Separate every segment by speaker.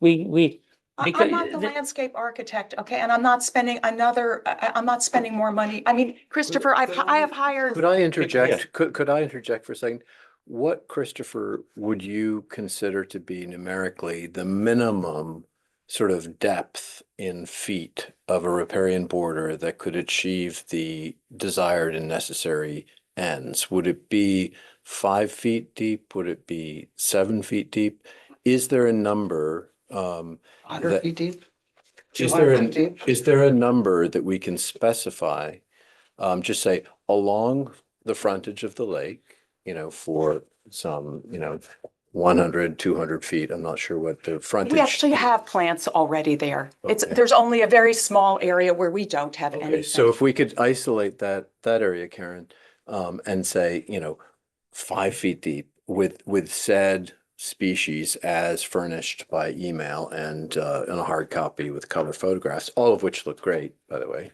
Speaker 1: we, we,
Speaker 2: I-
Speaker 1: Because
Speaker 2: I'm not the
Speaker 1: the-
Speaker 2: landscape architect, okay, and I'm not spending another, I, I- I'm not spending more money. I mean, Christopher, I've, I have hired,
Speaker 3: Could I interject? Could, could I interject for a second? What, Christopher, would you consider to be numerically the minimum sort of depth in feet of a riparian border that could achieve the desired and necessary ends? Would it be five feet deep? Would it be seven feet deep? Is there a number? um,
Speaker 4: Hundred
Speaker 3: that-
Speaker 4: feet deep?
Speaker 3: Is there, an-
Speaker 4: 200 feet deep?
Speaker 3: is there a number that we can specify? Um, just say along the frontage of the lake, you know, for some, you know, 100, 200 feet. I'm not sure what the frontage.
Speaker 2: we actually have plants already there. It's,
Speaker 3: Okay.
Speaker 2: there's only a very small area where we don't have
Speaker 3: Okay,
Speaker 2: anything.
Speaker 3: so if we could isolate that, that area, Karen, um, and say, you know, five feet deep with, with said species as furnished by email and, uh, in a hard copy with color photographs, all of which look great, by the way.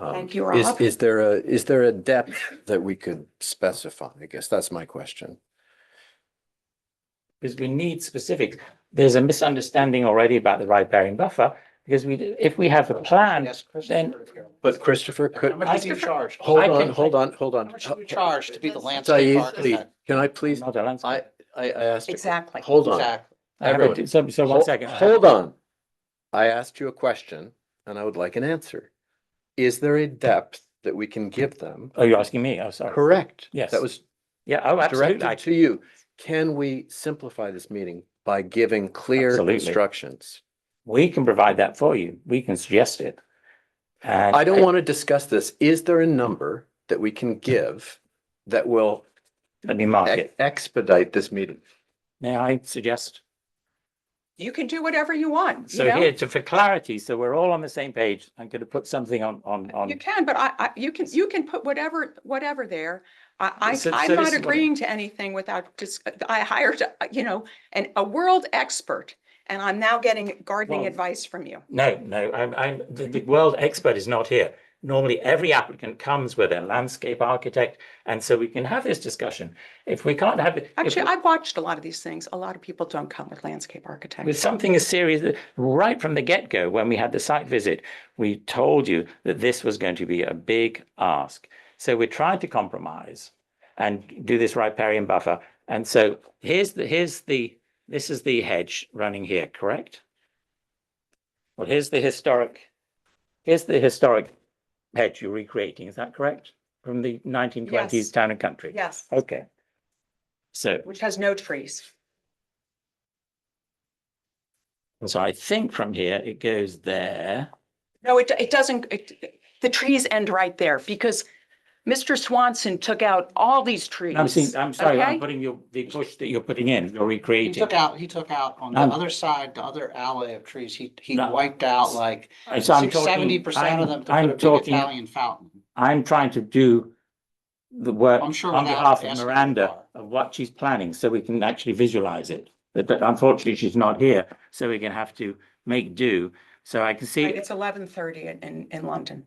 Speaker 3: Um,
Speaker 2: Thank you,
Speaker 3: is-
Speaker 2: Rob.
Speaker 3: Is there a, is there a depth that we could specify? I guess that's my question.
Speaker 1: because we need specifics. There's a misunderstanding already about the riparian buffer, because we, if we have a plan,
Speaker 4: Yes, Chris.
Speaker 1: then-
Speaker 3: But Christopher,
Speaker 4: How
Speaker 3: could,
Speaker 4: much do you
Speaker 1: Christopher-
Speaker 4: charge?
Speaker 3: hold
Speaker 1: I
Speaker 3: on,
Speaker 1: can-
Speaker 3: hold on, hold on.
Speaker 4: How much do you charge to be the landscape
Speaker 3: Said, please,
Speaker 4: architect?
Speaker 3: can I please,
Speaker 1: not a
Speaker 3: I,
Speaker 1: landscape.
Speaker 3: I I asked.
Speaker 2: Exactly.
Speaker 3: Hold on.
Speaker 4: Exactly.
Speaker 1: I have
Speaker 3: everyone,
Speaker 1: a- So, so one
Speaker 3: Hol-
Speaker 1: second.
Speaker 3: Hold on. I asked you a question and I would like an answer. Is there a depth that we can give them?
Speaker 1: Oh, you're asking me? Oh, sorry.
Speaker 3: Correct.
Speaker 1: Yes.
Speaker 3: That was
Speaker 1: Yeah, oh, absolutely. I-
Speaker 3: directed to you. Can we simplify this meeting by giving clear
Speaker 1: Absolutely.
Speaker 3: instructions?
Speaker 1: We can provide that for you. We can suggest it. And
Speaker 3: I don't want to discuss this. Is there a number that we can give that will
Speaker 1: Let me mark
Speaker 3: ex-
Speaker 1: it.
Speaker 3: expedite this meeting?
Speaker 1: May I suggest?
Speaker 2: You can do whatever you want, you
Speaker 1: So
Speaker 2: know?
Speaker 1: here, to, for clarity, so we're all on the same page. I'm going to put something on, on, on.
Speaker 2: You can, but I, I, you can, you can put whatever, whatever there. I,
Speaker 1: So-
Speaker 2: I, I'm
Speaker 1: so
Speaker 2: not
Speaker 1: this is what-
Speaker 2: agreeing to anything without just, I hired, uh, you know, an, a world expert. And I'm now getting gardening
Speaker 1: Well-
Speaker 2: advice from you.
Speaker 1: No, no, I'm, I'm, the, the world expert is not here. Normally, every applicant comes with a landscape architect, and so we can have this discussion. If we can't have it. if
Speaker 2: Actually, I've watched a lot of these things. A lot of people don't come with landscape
Speaker 1: With
Speaker 2: architects.
Speaker 1: something as serious, that- right from the get-go, when we had the site visit, we told you that this was going to be a big ask. So we tried to compromise and do this riparian buffer. And so here's the, here's the, this is the hedge running here, correct? Well, here's the historic, here's the historic hedge you're recreating, is that correct? From the nineteen twenties
Speaker 2: Yes.
Speaker 1: town and country?
Speaker 2: Yes,
Speaker 1: Okay. So
Speaker 2: which has no trees.
Speaker 1: So I think from here, it goes there.
Speaker 2: No, it, it doesn't, it, the trees end right there because Mr. Swanson took out all these trees.
Speaker 1: I'm seeing, I'm sorry, I'm
Speaker 2: okay?
Speaker 1: putting your, the bush that you're putting in, you're
Speaker 4: He
Speaker 1: recreating.
Speaker 4: took out, he took out on the
Speaker 1: Um,
Speaker 4: other side, the other alley of trees, he, he
Speaker 1: No.
Speaker 4: wiped out like
Speaker 1: And so I'm talking-
Speaker 4: seventy percent
Speaker 1: I'm-
Speaker 4: of them to
Speaker 1: I'm
Speaker 4: put a big
Speaker 1: talking-
Speaker 4: Italian fountain.
Speaker 1: I'm trying to do the work
Speaker 4: I'm
Speaker 1: on
Speaker 4: sure without
Speaker 1: behalf of
Speaker 4: asking you
Speaker 1: Miranda
Speaker 4: are.
Speaker 1: of what she's planning, so we can actually visualize it. But but unfortunately, she's not here, so we're gonna have to make do. So I can
Speaker 2: Right,
Speaker 1: see,
Speaker 2: It's eleven thirty in, in, in London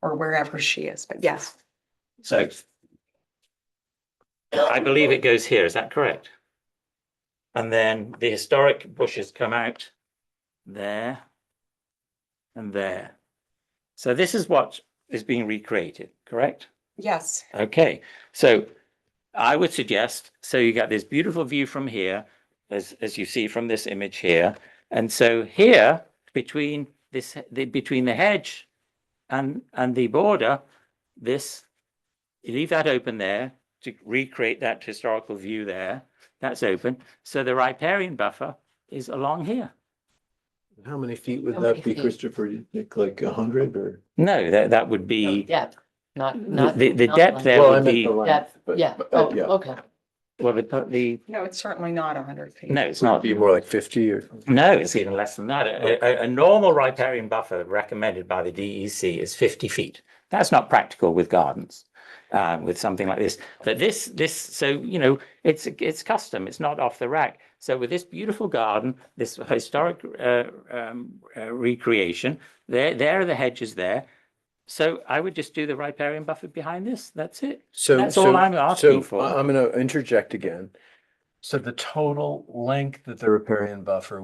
Speaker 2: or wherever she is, but yes.
Speaker 1: so. I believe it goes here, is that correct? And then the historic bushes come out there and there. So this is what is being recreated, correct?
Speaker 2: Yes,
Speaker 1: Okay, so I would suggest, so you got this beautiful view from here, as, as you see from this image here. And so here, between this, the, between the hedge and, and the border, this, you leave that open there to recreate that historical view there. That's open. So the riparian buffer is along here.
Speaker 3: How many feet would
Speaker 5: How
Speaker 3: that
Speaker 5: many
Speaker 3: be,
Speaker 5: feet?
Speaker 3: Christopher? You think like a hundred or?
Speaker 1: No, that, that would
Speaker 5: No,
Speaker 1: be,
Speaker 5: Depth, not, not.
Speaker 1: the, the
Speaker 5: not
Speaker 1: depth
Speaker 5: like-
Speaker 1: there
Speaker 3: Well, I
Speaker 1: would
Speaker 3: meant the
Speaker 1: be,
Speaker 3: length,
Speaker 5: Depth,
Speaker 3: but-
Speaker 5: yeah,
Speaker 3: but, uh,
Speaker 5: oh, okay.
Speaker 1: well, the, the,
Speaker 2: no, it's certainly not hundred feet.
Speaker 1: no, it's not.
Speaker 3: Be more like fifty or?
Speaker 1: No, it's even less than that. A, a- a normal riparian buffer recommended by the DEC is 50 feet. That's not practical with gardens, uh, with something like this. But this, this, so, you know, it's, it's custom, it's not off the rack. So with this beautiful garden, this historic uh, um, uh, recreation, there, there are the hedges there. So I would just do the riparian buffer behind this. That's it.
Speaker 3: So
Speaker 1: That's all
Speaker 3: so-
Speaker 1: I'm asking
Speaker 3: so
Speaker 1: for.
Speaker 3: I- I'm going to interject again. So the total length that the riparian buffer